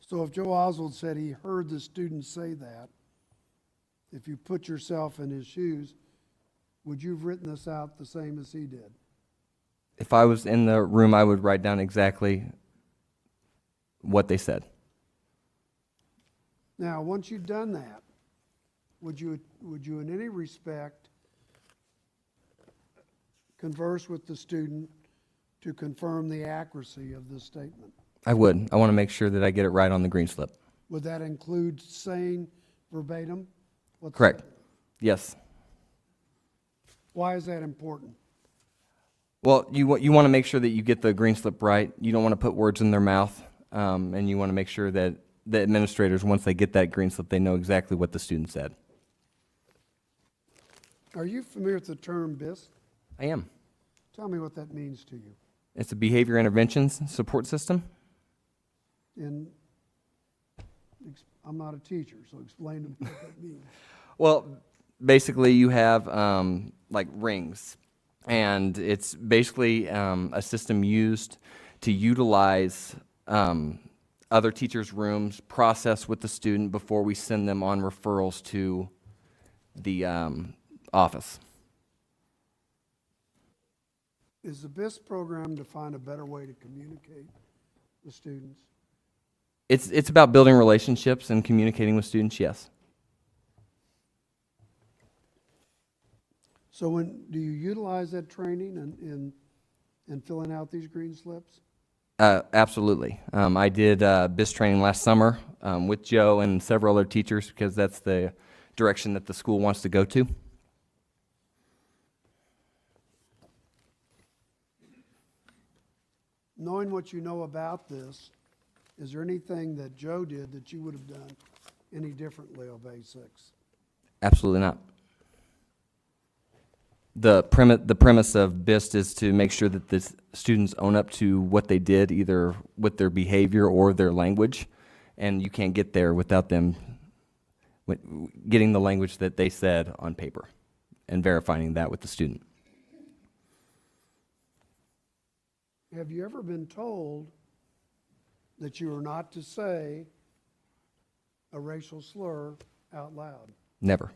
So if Joe Oswald said he heard the student say that, if you put yourself in his shoes, would you have written this out the same as he did? If I was in the room, I would write down exactly what they said. Now, once you've done that, would you, would you in any respect converse with the student to confirm the accuracy of this statement? I would. I want to make sure that I get it right on the green slip. Would that include saying verbatim? what the- Correct. Yes. Why is that important? Well, you, wa- you want to make sure that you get the green slip right. You don't want to put words in their mouth. Um, and you want to make sure that the administrators, once they get that green slip, they know exactly what the student said. Are you familiar with the term BIS? I am. Tell me what that means to you. It's a behavior interventions support system. And ex- I'm not a teacher, so explain to me what that means. Well, basically, you have um, like rings, and it's basically um, a system used to utilize um, other teachers' rooms, process with the student before we send them on referrals to the um, office. Is the BIS program to find a better way to communicate with students? It's it's about building relationships and communicating with students. Yes, So when, do you utilize that training and, in in filling out these green slips? uh, absolutely. Um, I did uh, BIS training last summer um, with Joe and several other teachers because that's the direction that the school wants to go to. Knowing what you know about this, is there anything that Joe did that you would have done any differently of A six? Absolutely not. The premise, the premise of BIST is to make sure that the s- students own up to what they did, either with their behavior or their language, and you can't get there without them wi- w- getting the language that they said on paper and verifying that with the student. Have you ever been told that you are not to say a racial slur out loud? Never.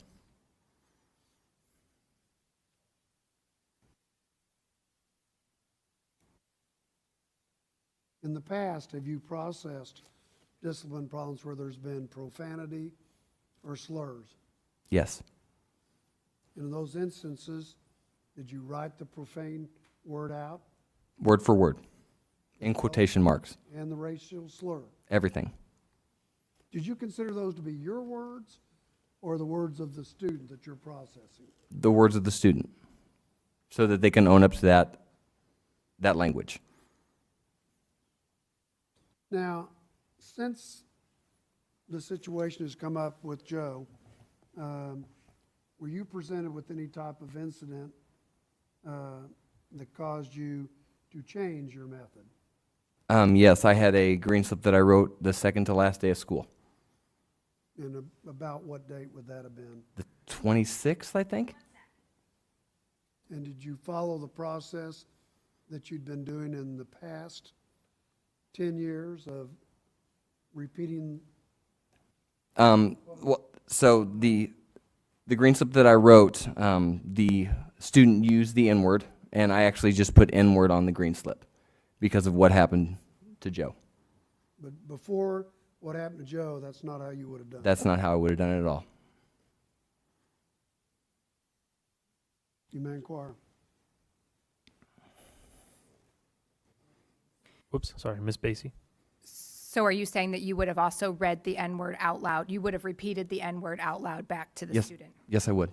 In the past, have you processed discipline problems where there's been profanity or slurs? Yes. And in those instances, did you write the profane word out Word for word. In quotation marks. and the racial slur? Everything. Did you consider those to be your words or the words of the student that you're processing? The words of the student. So that they can own up to that, that language. Now, since the situation has come up with Joe, um, were you presented with any type of incident uh, that caused you to change your method? Um, yes, I had a green slip that I wrote the second to last day of school, And a- about what date would that have been? the 26th, I think. And did you follow the process that you'd been doing in the past 10 years of repeating? Um, well, so the the green slip that I wrote, um, the student used the N word, and I actually just put N word on the green slip because of what happened to Joe. But before what happened to Joe, that's not how you would have done it. That's not how I would have done it at all. You may inquire. Whoops, sorry, Miss Basie. So are you saying that you would have also read the N-word out loud? You would have repeated the N-word out loud back to the Yes, student? yes, I would.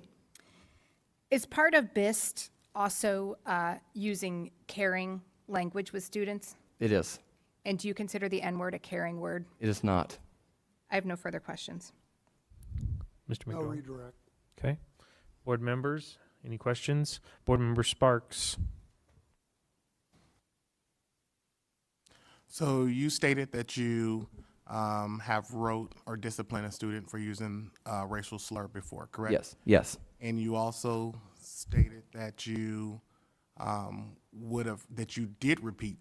Is part of BIST also uh, using caring language with students? It is. And do you consider the N-word a caring word? It is not. I have no further questions. Mr. No McDowell. redirect. Okay. Board members, any questions? Board member Sparks. So you stated that you um, have wrote or disciplined a student for using a racial slur before, correct? Yes, yes, And you also stated that you um, would have, that you did repeat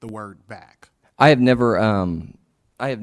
the word back. I have never um,